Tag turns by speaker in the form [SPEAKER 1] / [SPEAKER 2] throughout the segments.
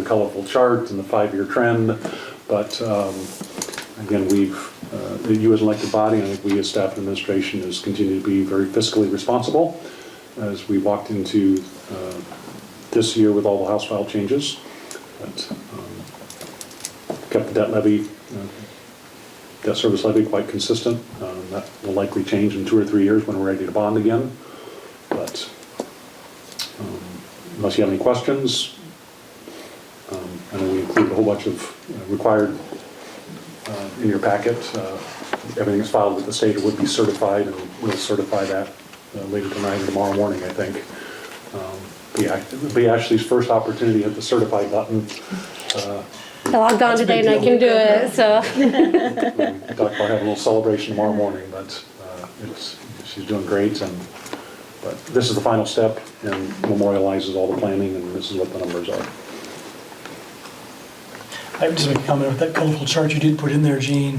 [SPEAKER 1] colorful chart and the five-year trend, but um, again, we've, uh, you as an elected body, and I think we as staff and administration has continued to be very fiscally responsible as we walked into uh, this year with all the House file changes. But um, kept the debt levy, uh, debt service levy quite consistent. Um, That will likely change in two or three years when we're ready to bond again. But um, unless you have any questions, um, I know we include a whole bunch of uh, required uh, in your packet. Uh, Everything is filed with the state, it would be certified, and we'll certify that uh, later tonight or tomorrow morning, I think. Um, Be Ash- be Ashley's first opportunity at the certify button. Uh,
[SPEAKER 2] I logged on today and I can do it, so.
[SPEAKER 1] we talked about having a little celebration tomorrow morning, but uh, it's, she's doing great, and, but this is the final step, and memorializes all the planning, and this is what the numbers are.
[SPEAKER 3] I would just make a comment with that colorful chart you did put in there, Gene,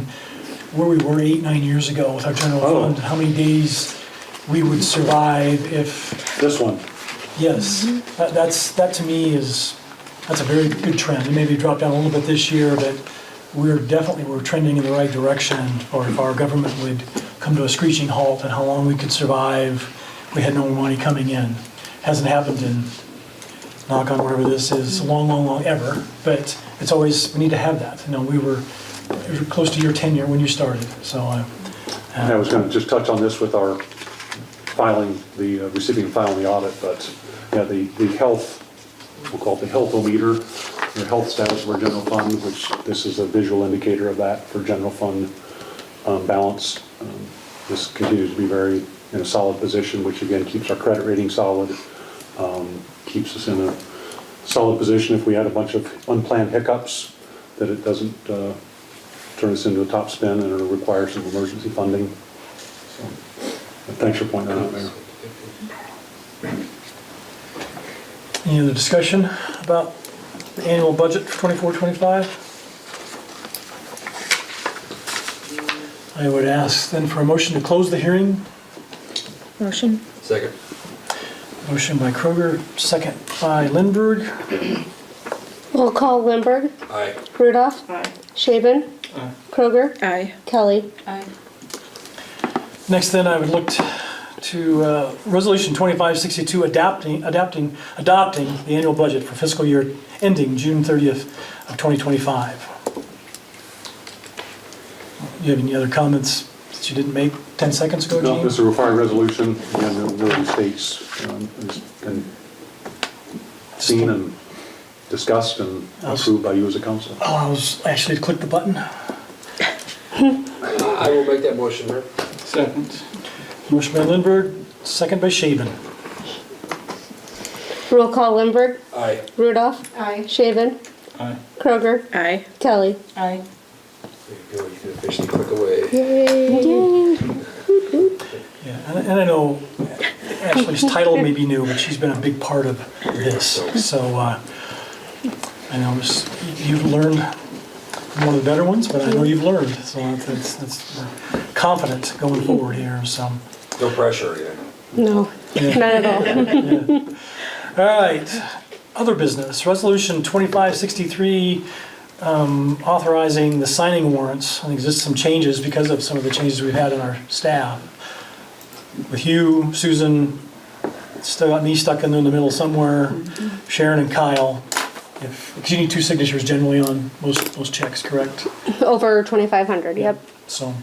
[SPEAKER 3] where we were eight, nine years ago with our general
[SPEAKER 1] Oh.
[SPEAKER 3] fund, how many days we would survive if,
[SPEAKER 1] This one,
[SPEAKER 3] yes, that- that's, that to me is, that's a very good trend. It maybe dropped down a little bit this year, but we're definitely, we're trending in the right direction. Or if our government would come to a screeching halt and how long we could survive, we had no money coming in. Hasn't happened in knock on whatever this is, long, long, long ever, but it's always, we need to have that. You know, we were it was close to your tenure when you started, so uh, I,
[SPEAKER 1] and I was gonna just touch on this with our filing, the, uh, receiving and filing the audit, but, yeah, the, the health, we'll call it the health-o-meter, the health status of our general fund, which this is a visual indicator of that for general fund um, balance. Um, This continues to be very, in a solid position, which again, keeps our credit rating solid, um, keeps us in a solid position if we had a bunch of unplanned hiccups, that it doesn't uh, turn us into a topspin and it'll require some emergency funding. So, but Thanks for pointing that out, Mayor.
[SPEAKER 3] any other discussion about the annual budget for 24-25? I would ask then for a motion to close the hearing.
[SPEAKER 4] Motion?
[SPEAKER 5] Second.
[SPEAKER 3] Motion by Kroger, second by Lindberg.
[SPEAKER 2] We'll call Lindberg,
[SPEAKER 5] Aye.
[SPEAKER 2] Rudolph,
[SPEAKER 4] Aye.
[SPEAKER 2] Shaven, Kroger,
[SPEAKER 4] Aye.
[SPEAKER 2] Kelly.
[SPEAKER 4] Aye.
[SPEAKER 3] Next then, I would look t- to uh, Resolution 2562, adapting, adapting, adopting the annual budget for fiscal year ending June 30th of 2025. You have any other comments that you didn't make 10 seconds ago,
[SPEAKER 1] No, this is
[SPEAKER 3] Gene?
[SPEAKER 1] a required resolution, and it really states, um, has been seen and discussed and approved by you as a council.
[SPEAKER 3] Oh, I was actually to click the button.
[SPEAKER 5] I will make that motion, Mayor.
[SPEAKER 6] Second.
[SPEAKER 3] Motion by Lindberg, second by Shaven.
[SPEAKER 2] Roll call Lindberg,
[SPEAKER 5] Aye.
[SPEAKER 2] Rudolph,
[SPEAKER 4] Aye.
[SPEAKER 2] Shaven,
[SPEAKER 6] Aye.
[SPEAKER 2] Kroger,
[SPEAKER 4] Aye.
[SPEAKER 2] Kelly.
[SPEAKER 4] Aye.
[SPEAKER 5] There you go, you can officially click away.
[SPEAKER 2] Yay.
[SPEAKER 3] Yeah, and and I know Ashley's title may be new, but she's been a big part of this. So uh, I know it's- you've learned from one of the better ones, but I know you've learned. So that's, that's we're confident going forward here, so.
[SPEAKER 5] No pressure, yeah.
[SPEAKER 2] No, not at all.
[SPEAKER 3] All right, other business, resolution 2563, um, authorizing the signing warrants. I think there's just some changes because of some of the changes we've had in our staff. With you, Susan, still got me stuck in the middle somewhere, Sharon and Kyle. If- 'cause you need two signatures generally on most, most checks, correct?
[SPEAKER 2] Over 2,500, yep.
[SPEAKER 3] So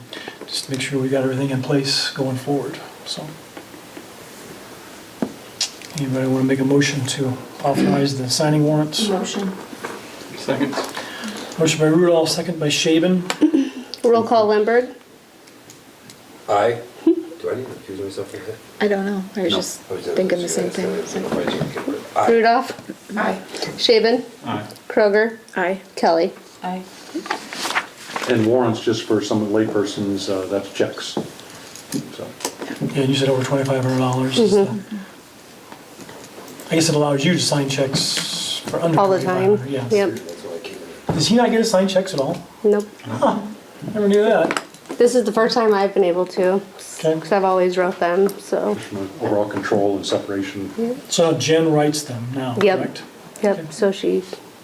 [SPEAKER 3] just to make sure we got everything in place going forward, so. Anybody want to make a motion to authorize the signing warrants?
[SPEAKER 4] Motion?
[SPEAKER 6] Second.
[SPEAKER 3] Motion by Rudolph, second by Shaven.
[SPEAKER 2] Roll call Lindberg,
[SPEAKER 5] Aye. Do I need to accuse myself of that?
[SPEAKER 4] I don't know, I was just
[SPEAKER 5] I was gonna
[SPEAKER 4] thinking the
[SPEAKER 5] say
[SPEAKER 4] same
[SPEAKER 5] that, so
[SPEAKER 4] thing.
[SPEAKER 5] it's not quite sure. Aye.
[SPEAKER 2] Rudolph,
[SPEAKER 4] Aye.
[SPEAKER 2] Shaven,
[SPEAKER 6] Aye.
[SPEAKER 2] Kroger,
[SPEAKER 4] Aye.
[SPEAKER 2] Kelly.
[SPEAKER 4] Aye.
[SPEAKER 1] And warrants, just for some laypersons, uh, that's checks. So,
[SPEAKER 3] Yeah, you said over twenty-five hundred dollars.
[SPEAKER 2] Mm-hmm.
[SPEAKER 3] I guess it allows you to sign checks for under
[SPEAKER 2] All the
[SPEAKER 3] twenty-five
[SPEAKER 2] time.
[SPEAKER 3] hundred, yes.
[SPEAKER 2] Yep.
[SPEAKER 5] That's why I keep it.
[SPEAKER 3] Does he not get to sign checks at all?
[SPEAKER 2] Nope.
[SPEAKER 3] Never knew that.
[SPEAKER 2] This is the first time I've been able to,
[SPEAKER 3] Okay.
[SPEAKER 2] because I've always wrote them, so.
[SPEAKER 1] from an overall control and separation.
[SPEAKER 3] So now Jen writes them now,
[SPEAKER 2] Yep.
[SPEAKER 3] correct?
[SPEAKER 2] Yep, so she